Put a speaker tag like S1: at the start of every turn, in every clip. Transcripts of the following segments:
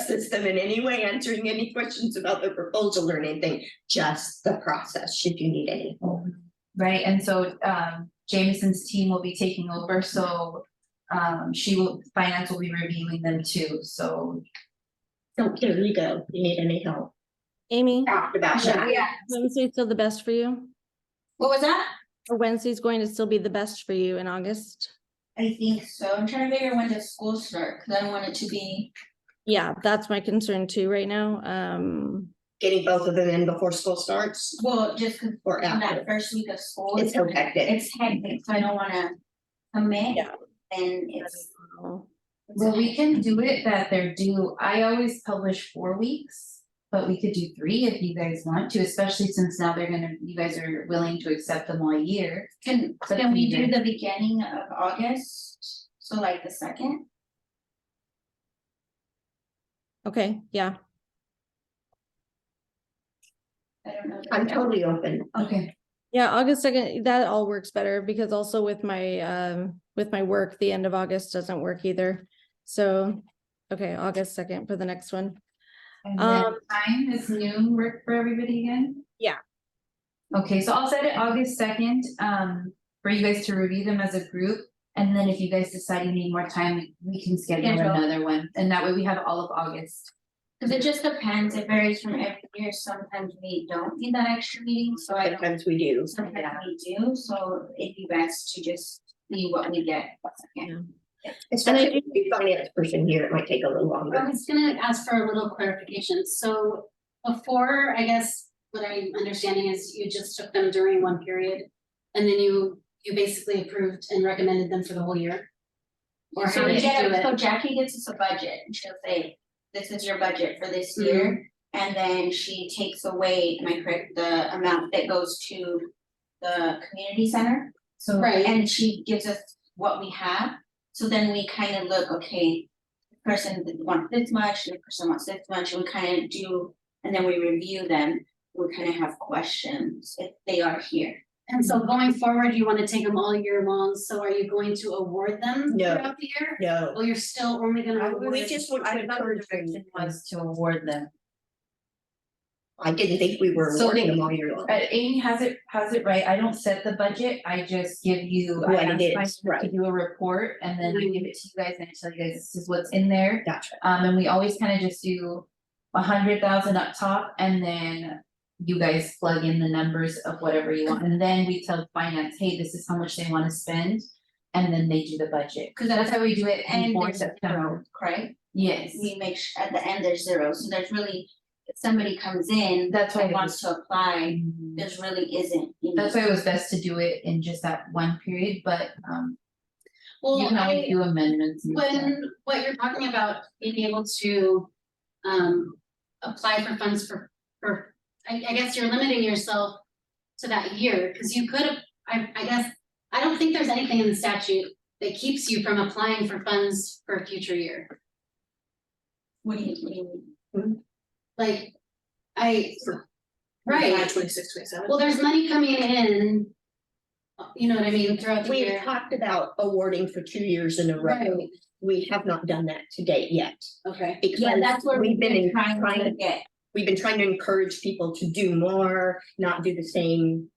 S1: system in any way, answering any questions about the proposal or anything, just the process, should you need any.
S2: Right, and so um Jameson's team will be taking over, so um she will, finance will be reviewing them too, so.
S1: So here you go, you need any help.
S3: Amy,
S1: Dr. Basha,
S2: Yeah,
S3: Wednesday's still the best for you?
S2: what was that?
S3: Or Wednesday's going to still be the best for you in August?
S2: I think so, I'm trying to figure when does school start, cause I don't want it to be.
S3: Yeah, that's my concern too right now. Um,
S1: getting both of them in before school starts
S4: Well, just 'cause
S1: or
S4: in that
S1: after,
S4: first week of school.
S1: it's so hectic.
S4: It's hectic, so I don't wanna commit
S3: Yeah.
S4: and it's.
S2: Well, we can do it that they're due, I always publish four weeks, but we could do three if you guys want to, especially since now they're gonna, you guys are willing to accept them all year.
S4: Can,
S2: But
S4: can we do
S2: neither.
S4: the beginning of August? So like the second?
S3: okay, yeah,
S4: I don't know.
S1: I'm totally open.
S2: Okay.
S3: yeah, August second, that all works better because also with my, um, with my work, the end of August doesn't work either. So, okay, August second for the next one.
S2: And then
S3: Um,
S2: time is noon work for everybody again?
S3: Yeah.
S2: Okay, so I'll set it August second, um, for you guys to review them as a group. And then if you guys decide you need more time, we can schedule
S4: Schedule.
S2: another one, and that way we have all of August.
S4: Cause it just depends, it varies from every year, sometimes we don't need that extra meeting, so I don't,
S1: Sometimes we do.
S4: sometimes we do, so it'd be best to just see what we get. Okay.
S1: Especially if you finance person here, it might take a little longer.
S5: I was gonna ask for a little clarification, so before, I guess, what I'm understanding is you just took them during one period. And then you, you basically approved and recommended them for the whole year. Or how
S4: So we
S5: did you do
S4: get, so
S5: it?
S4: Jackie gets us a budget and she'll say, this is your budget for this
S5: Mm-hmm.
S4: year. And then she takes away, am I correct, the amount that goes to the community center?
S2: So.
S5: Right,
S4: And she gives us what we have, so then we kind of look, okay. the Person that wants this much, the person wants this much, and we kind of do, and then we review them, we kind of have questions if they are here.
S5: and so going forward, you wanna take them all year long, so are you going to award them
S1: No.
S5: throughout the year?
S1: No.
S5: Well, you're still only gonna award.
S1: We just want to encourage them.
S2: to award them.
S1: I didn't think we were
S2: So
S1: awarding
S2: they-
S1: them all year long.
S2: Uh, Amy has it, has it right, I don't set the budget, I just give you, I
S1: What
S2: ask
S1: it
S2: my
S1: is, right.
S2: to do a report, and then I give it to you guys, and I tell you guys, this is what's in there.
S1: Gotcha.
S2: Um, and we always kind of just do a hundred thousand up top, and then you guys plug in the numbers of whatever you want, and then we tell finance, hey, this is how much they wanna spend. And then they do the budget,
S4: Cause
S2: that's
S4: that's,
S2: how we do it
S4: and
S2: before
S4: there's
S2: September,
S4: zero, correct?
S2: yes,
S4: We make, su- at the end, there's zero, so there's really, if somebody comes in
S2: that's why.
S4: that
S2: it
S4: wants
S2: was-
S4: to apply,
S2: Mhm.
S4: there's really isn't. any-
S2: That's why it was best to do it in just that one period, but um you
S5: Well,
S2: can
S5: I-
S2: always do amendments and stuff.
S5: When, what you're talking about, being able to, um, apply for funds for, for, I, I guess you're limiting yourself to that year, because you could, have- I, I guess, I don't think there's anything in the statute that keeps you from applying for funds for a future year.
S4: What do you mean?
S5: Like, I,
S6: Like
S5: right,
S6: Twenty-six, twenty-seven.
S5: well, there's money coming in, you know what I mean, throughout the
S1: We've
S5: year.
S1: talked about awarding for two years in a row.
S5: Right,
S1: We have not done that to date yet.
S5: okay.
S4: Yeah, that's
S1: Because
S4: where
S1: we've been in-
S4: trying
S1: trying
S4: to get,
S1: we've been trying to encourage people to do more, not do the same.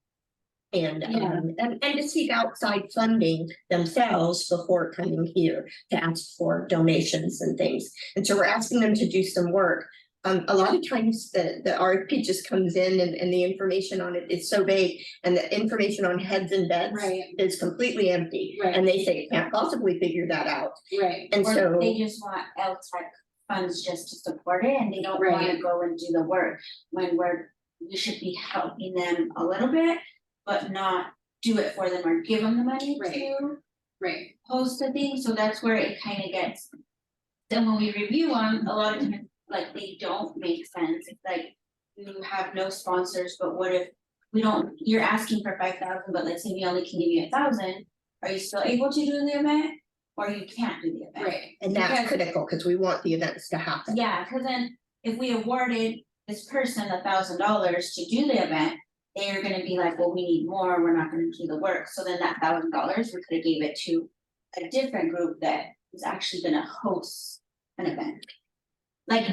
S1: And,
S5: Yeah.
S1: um, and, and to seek outside funding themselves before coming here to ask for donations and things. And so we're asking them to do some work. Um, a lot of times the, the RFP just comes in and, and the information on it is so vague and the information on heads and beds
S5: Right.
S1: is completely empty.
S5: Right.
S1: And they say, can't possibly figure that out.
S5: Right,
S1: And
S4: or they
S1: so,
S4: just want LTAC funds just to support it and they don't wanna
S5: Right.
S4: go and do the work. When we're, we should be helping them a little bit, but not do it for them or give them the money
S5: Right.
S4: to
S5: right.
S4: host the thing, so that's where it kinda gets. Then when we review them, a lot of times, like, they don't make sense, it's like, you have no sponsors, but what if? We don't, you're asking for five thousand, but let's say we only can give you a thousand, are you still able to do the event? Or you can't do the event?
S5: Right,
S1: and that's
S4: Because-
S1: critical because we want the events to happen.
S4: Yeah, cause then if we awarded this person a thousand dollars to do the event. They're gonna be like, well, we need more, we're not gonna do the work, so then that thousand dollars, we could have gave it to. A different group that is actually gonna host an event. like